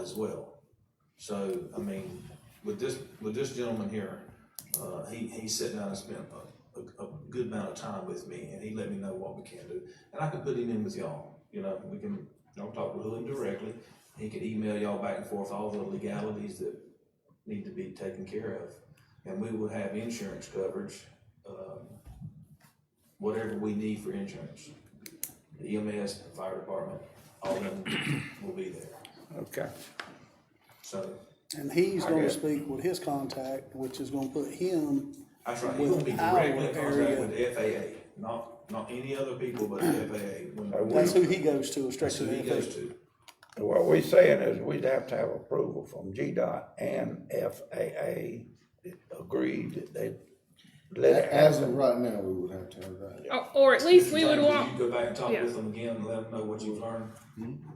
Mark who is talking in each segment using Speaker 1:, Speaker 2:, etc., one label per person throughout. Speaker 1: as well. So, I mean, with this, with this gentleman here, uh, he, he sat down and spent a, a, a good amount of time with me, and he let me know what we can do. And I can put him in with y'all, you know, we can, y'all talk with him directly, he could email y'all back and forth all the legalities that need to be taken care of. And we will have insurance coverage, um, whatever we need for insurance. The EMS, fire department, all of them will be there,
Speaker 2: Okay,
Speaker 1: so.
Speaker 3: And he's
Speaker 2: Okay.
Speaker 3: gonna speak with his contact, which is gonna put him,
Speaker 1: That's right, you'll be directly in
Speaker 3: With our
Speaker 1: contact
Speaker 3: area.
Speaker 1: with the FAA, not, not any other people but the FAA. when-
Speaker 3: that's who he goes to, is straight
Speaker 1: That's
Speaker 3: to
Speaker 1: who he
Speaker 3: the
Speaker 1: goes
Speaker 3: FAA.
Speaker 1: to.
Speaker 2: what we're saying is we'd have to have approval from GDOT and FAA agreed that they let it
Speaker 4: As
Speaker 2: happen.
Speaker 4: of right now, we would have to have that.
Speaker 5: Or, or at least we would
Speaker 1: Like,
Speaker 5: want,
Speaker 1: You go back and talk
Speaker 5: yeah.
Speaker 1: with them again, and let them know what you've learned.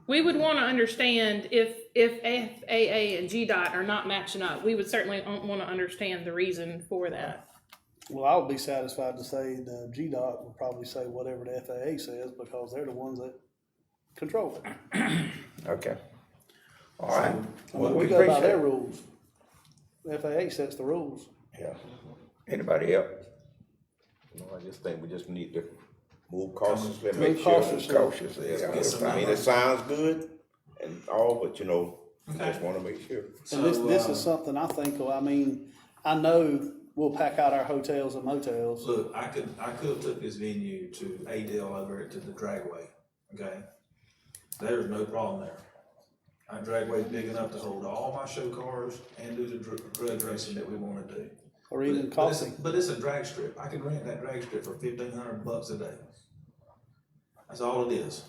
Speaker 5: we would want to understand if, if FAA and GDOT are not matching up, we would certainly want to understand the reason for that.
Speaker 3: Well, I would be satisfied to say the GDOT would probably say whatever the FAA says, because they're the ones that control it.
Speaker 2: Okay. All right.
Speaker 3: I
Speaker 2: Well,
Speaker 3: mean,
Speaker 2: we
Speaker 3: we go by
Speaker 2: appreciate
Speaker 3: their
Speaker 2: it.
Speaker 3: rules. FAA sets the rules.
Speaker 2: Yeah. Anybody else?
Speaker 6: No, I just think we just need to move cautiously, and
Speaker 3: Move
Speaker 6: make sure it's
Speaker 3: cautiously.
Speaker 6: cautiously. yeah.
Speaker 1: Get some
Speaker 6: I mean, it sounds good and all, but you know, we just wanna make sure.
Speaker 3: And this,
Speaker 1: So,
Speaker 3: this
Speaker 1: um,
Speaker 3: is something I think, I mean, I know we'll pack out our hotels and motels.
Speaker 1: Look, I could, I could have took this venue to Adele over to the dragway, okay? There's no problem there. Our dragway's big enough to hold all my show cars and do the dr- drug racing that we wanna do.
Speaker 3: Or even
Speaker 1: But it's-
Speaker 3: coffee.
Speaker 1: But it's a drag strip. I can rent that drag strip for fifteen hundred bucks a day. That's all it is.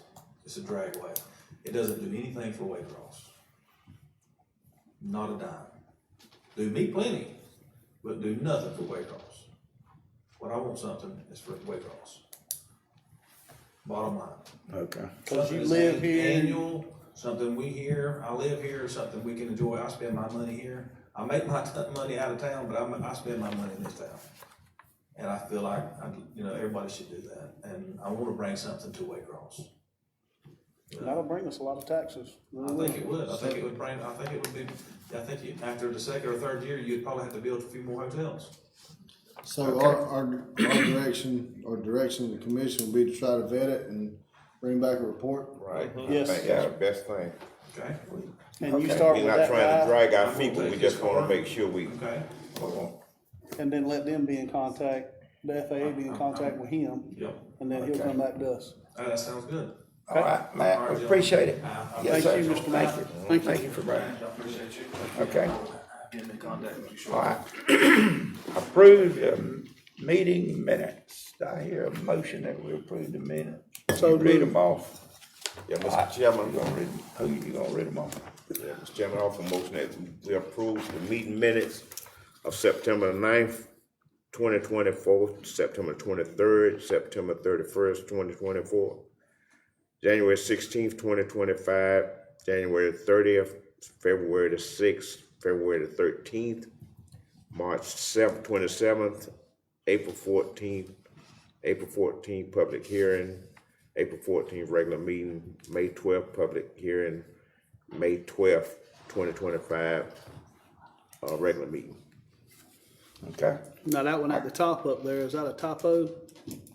Speaker 1: It's a dragway. It doesn't do anything for Waycross. Not a dime. Do me plenty, but do nothing for Waycross. What I want something is for Waycross. Bottom line.
Speaker 2: Okay.
Speaker 3: Cause
Speaker 1: Something
Speaker 3: you
Speaker 1: that's
Speaker 3: live
Speaker 1: an-
Speaker 3: here,
Speaker 1: Annual, something we hear, I live here, something we can enjoy. I spend my money here. I make my t- money out of town, but I'm, I spend my money in this town. And I feel like, I, you know, everybody should do that. And I wanna bring something to Waycross.
Speaker 3: that'll bring us a lot of taxes.
Speaker 1: I think it would. I think it would bring, I think it would be, I think you, after the second or third year, you'd probably have to build a few more hotels.
Speaker 4: So our, our, our direction, our direction of the commission will be to try to vet it and bring back a report.
Speaker 6: Right? I
Speaker 3: Yes.
Speaker 6: think That's the best thing.
Speaker 1: Okay?
Speaker 3: And you
Speaker 2: Okay.
Speaker 3: start
Speaker 6: We're
Speaker 3: with
Speaker 6: not
Speaker 3: that
Speaker 6: trying to
Speaker 3: guy,
Speaker 6: drag our
Speaker 1: I'm
Speaker 6: feet,
Speaker 1: gonna
Speaker 6: but we
Speaker 1: take this
Speaker 6: just wanna
Speaker 1: car.
Speaker 6: make sure we,
Speaker 1: Okay?
Speaker 3: and then let them be in contact, the FAA be in contact with him,
Speaker 1: Yep.
Speaker 3: and then he'll come back to us.
Speaker 1: Uh, That sounds good.
Speaker 2: All right, Matt, we appreciate it. Yes, sir.
Speaker 3: Thank you, Mr. Mayor.
Speaker 2: Thank you. Thank you for bringing it.
Speaker 1: I appreciate you.
Speaker 2: Okay.
Speaker 1: Getting in contact with you shortly.
Speaker 2: All right. Approve the meeting minutes. Do I hear a motion that we approve the minutes? So Read them off.
Speaker 6: yeah, Mr. Chairman,
Speaker 2: You gonna read, who you gonna read them off?
Speaker 6: yeah, Mr. Chairman, I offer a motion that we approve the meeting minutes of September the ninth, twenty twenty-four, September twenty-third, September thirty-first, twenty twenty-four, January sixteenth, twenty twenty-five, January thirtieth, February the sixth, February the thirteenth, March seventh, twenty-seventh, April fourteenth, April fourteenth, public hearing, April fourteenth, regular meeting, May twelfth, public hearing, May twelfth, twenty twenty-five, uh, regular meeting.
Speaker 2: Okay.
Speaker 3: Now, that one at the top up there, is that a typo?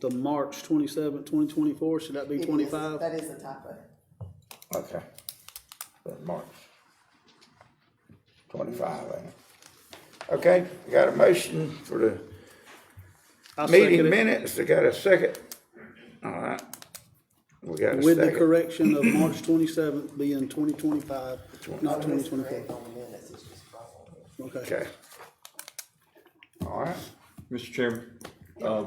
Speaker 3: The March twenty-seventh, twenty twenty-four, should that be
Speaker 7: It is-
Speaker 3: twenty-five?
Speaker 7: That is a typo.
Speaker 2: Okay. That March. Twenty-five, ain't it? Okay, we got a motion for the
Speaker 3: I
Speaker 2: meeting
Speaker 3: second it
Speaker 2: minutes. I got a second. All right. We got a
Speaker 3: With the
Speaker 2: second.
Speaker 3: correction of March twenty-seventh being twenty twenty-five, not twenty
Speaker 7: It's correct
Speaker 3: twenty-four.
Speaker 7: on the minutes, it's just wrong on here.
Speaker 3: Okay.
Speaker 2: Okay. All right.
Speaker 8: Mr. Chairman, uh,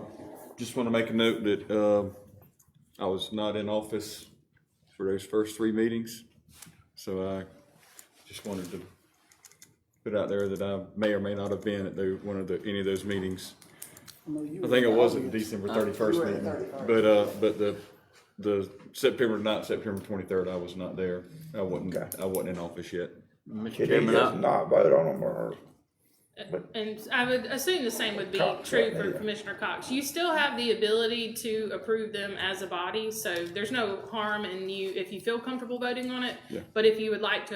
Speaker 8: just want to make a note that, uh, I was not in office for those first three meetings. So I just wanted to put out there that I may or may not have been at the, one of the, any of those meetings. I think it was at the December thirty-first
Speaker 7: You were at
Speaker 8: meeting,
Speaker 7: 31st.
Speaker 8: but, uh, but the, the September, not September twenty-third, I was not there. I wasn't,
Speaker 2: Okay.
Speaker 8: I wasn't in office yet.
Speaker 2: Should he just not vote on them or?
Speaker 5: And I would assume the same would be
Speaker 2: Cox,
Speaker 5: true
Speaker 2: right,
Speaker 5: for
Speaker 2: yeah.
Speaker 5: Commissioner Cox. You still have the ability to approve them as a body, so there's no harm in you, if you feel comfortable voting on it. But if you would like to